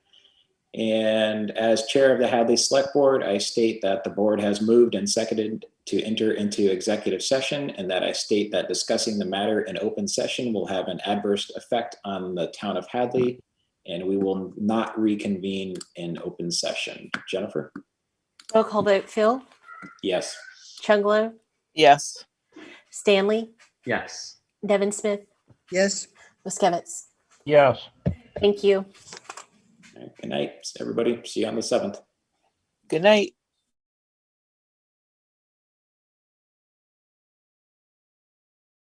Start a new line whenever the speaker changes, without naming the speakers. And as chair of the Hadley Select Board, I state that the board has moved and seconded to enter into executive session and that I state that discussing the matter in open session will have an adverse effect on the town of Hadley. And we will not reconvene in open session. Jennifer?
Roll call vote, Phil,
Yes.
Chunglo,
Yes.
Stanley,
Yes.
Devin Smith,
Yes.
Muskevitz.
Yes.
Thank you.
All right, Good night, everybody. See you on the seventh.
Good night.